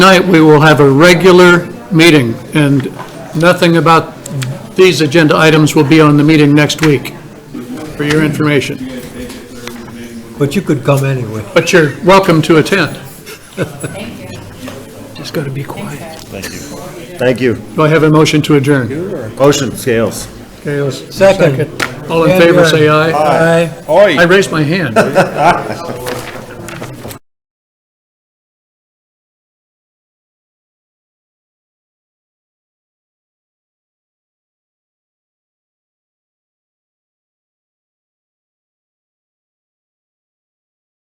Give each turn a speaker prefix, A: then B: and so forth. A: Tonight, we will have a regular meeting, and nothing about these agenda items will be on the meeting next week, for your information.
B: But you could come anyway.
A: But you're welcome to attend. Just got to be quiet.
C: Thank you.
A: Do I have a motion to adjourn?
C: Motion, Scales.
A: Okay, let's-
B: Second.
A: All in favor, say aye.
B: Aye.
A: I raised my hand.